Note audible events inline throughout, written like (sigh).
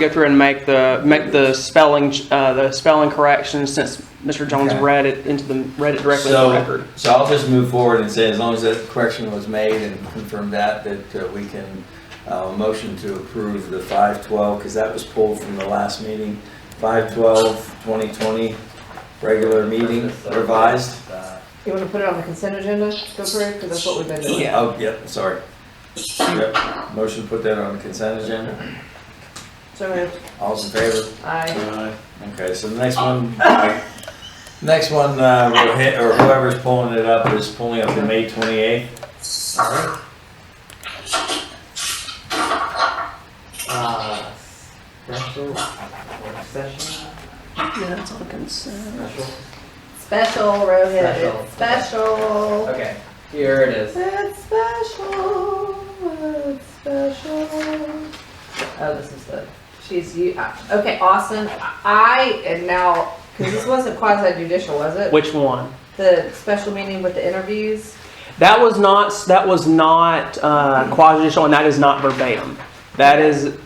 go through and make the, make the spelling, uh, the spelling corrections since Mr. Jones Okay. read it into the, read it directly into the So, record. so I'll just move forward and say, as long as that correction was made and confirm that, that uh, we can, uh, motion to approve the five twelve, because that was pulled from the last meeting. Five twelve, twenty twenty, regular meeting revised. Uh, You want to put it on the consent agenda, go for it, because that's what we've been doing. Yeah. Oh, yep, sorry. Yep, motion to put that on the consent agenda. So moved. All's in favor? Aye. Okay, so the next one, next one, uh, we'll hit- or whoever's pulling it up is pulling up the May twenty-eighth. Uh, special work session, Yeah, that's all consent. special. Special, Rohit, Special. it's special. Okay, here it is. It's special, it's special. Oh, this is the, she's, you, uh, okay, Austin, I am now, because this wasn't quasi judicial, was it? Which one? The special meeting with the interviews? That was not, that was not, uh, quasi-judicial and that is not verbatim. That is,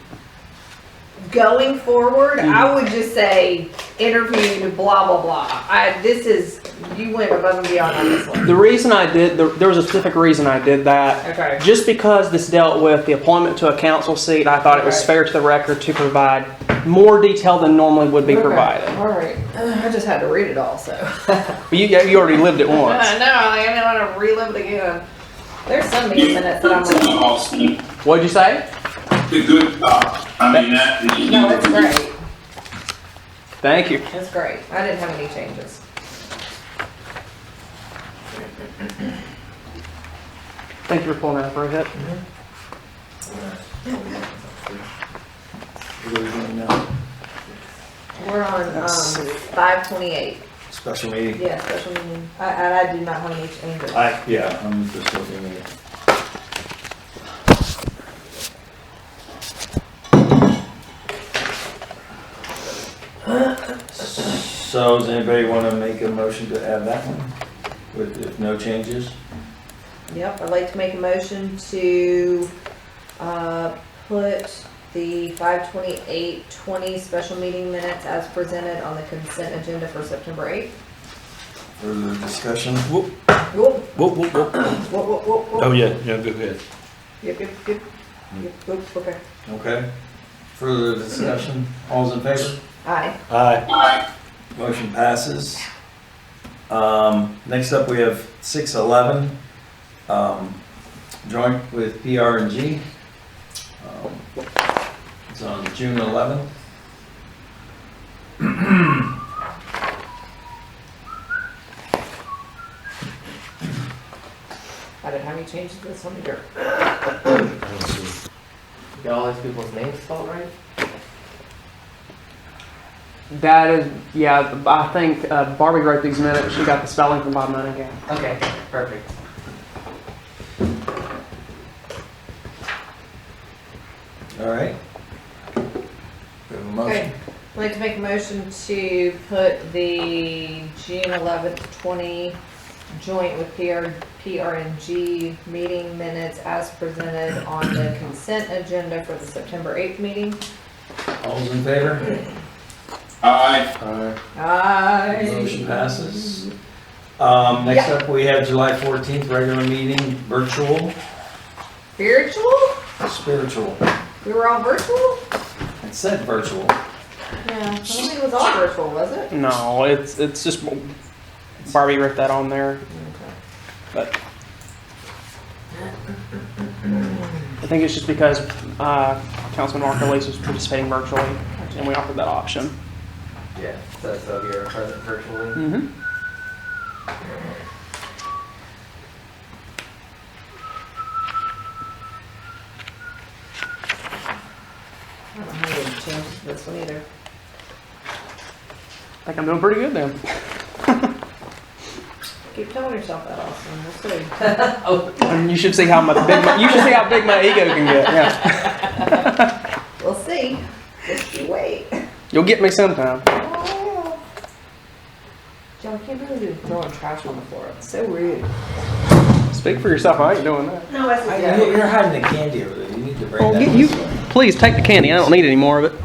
Going forward, I would just say interviewed, blah, blah, blah. I, this is, you went above and beyond on this one. the reason I did, there there was a specific reason I did that. Okay. Just because this dealt with the appointment to a council seat, I thought it was Right. fair to the record to provide more detail than normally would be Okay, provided. All right, I just had to read it all, so. But you, you already lived it (laughs) No, once. I didn't want to relive it again. There's some meeting minutes that I'm like, Austin, What'd you say? the good cop. I mean, that. no, it's great, Thank you. it's great. I didn't have any changes. Thank you for pulling that up, Rohit. What are we doing now? We're on, um, Let's see. five twenty-eight, Special meeting? yeah, special meeting. I, I, I do not have any changes. I, yeah, I'm just looking at it. So does anybody want to make a motion to add that one with, if no changes? Yep, I'd like to make a motion to, uh, put the five twenty-eight, twenty special meeting minutes as presented on the consent agenda for September eighth. Further discussion? Whoop, Whoop, whoop, whoop. whoop, whoop, whoop, whoop. Oh, yeah, yeah, go ahead. Yep, yep, yep. Yep, Oops, okay. Okay. Further discussion? All's in favor? Aye. Aye. Motion passes. Um, next up, we have six eleven, um, joint with PR and G. Um, It's on June eleventh. I didn't have any changes to this one either. Got all these people's names spelled right? That is, yeah, I think uh, Barbie wrote these minutes. She got the spelling from Bob Monahan. Okay, perfect. All right. We have a motion. Okay, I'd like to make a motion to put the June eleventh, twenty joint with PR, PRNG meeting minutes as presented on the consent agenda for the September eighth meeting. All's in favor? Aye, Aye. Motion Aye. passes. Um, next up, we have July fourteenth, regular meeting, virtual, Virtual? spiritual. We were all virtual? It said virtual. Yeah. I don't think it was all virtual, was it? No, it's it's just Barbie wrote that on there. But I think it's just because uh, Councilman Mark Elise was participating virtually, and we offered that option. Yeah, so, so if you're present virtually. Mm-hmm. I don't have any changes to this one either. I think I'm doing pretty good then. Keep telling yourself that, Austin, we'll see. And you should see how my big my, you should see how big my ego can get. Yeah, We'll see. Just you wait. you'll get me sometime. Joe, I can't believe you're throwing trash on the floor. It's so rude. Speak for yourself. I ain't doing that. No, that's I- You're hiding the candy over there. You need to bring Well, that. get this Oh, you- way. Please take the candy. I don't need any more of it.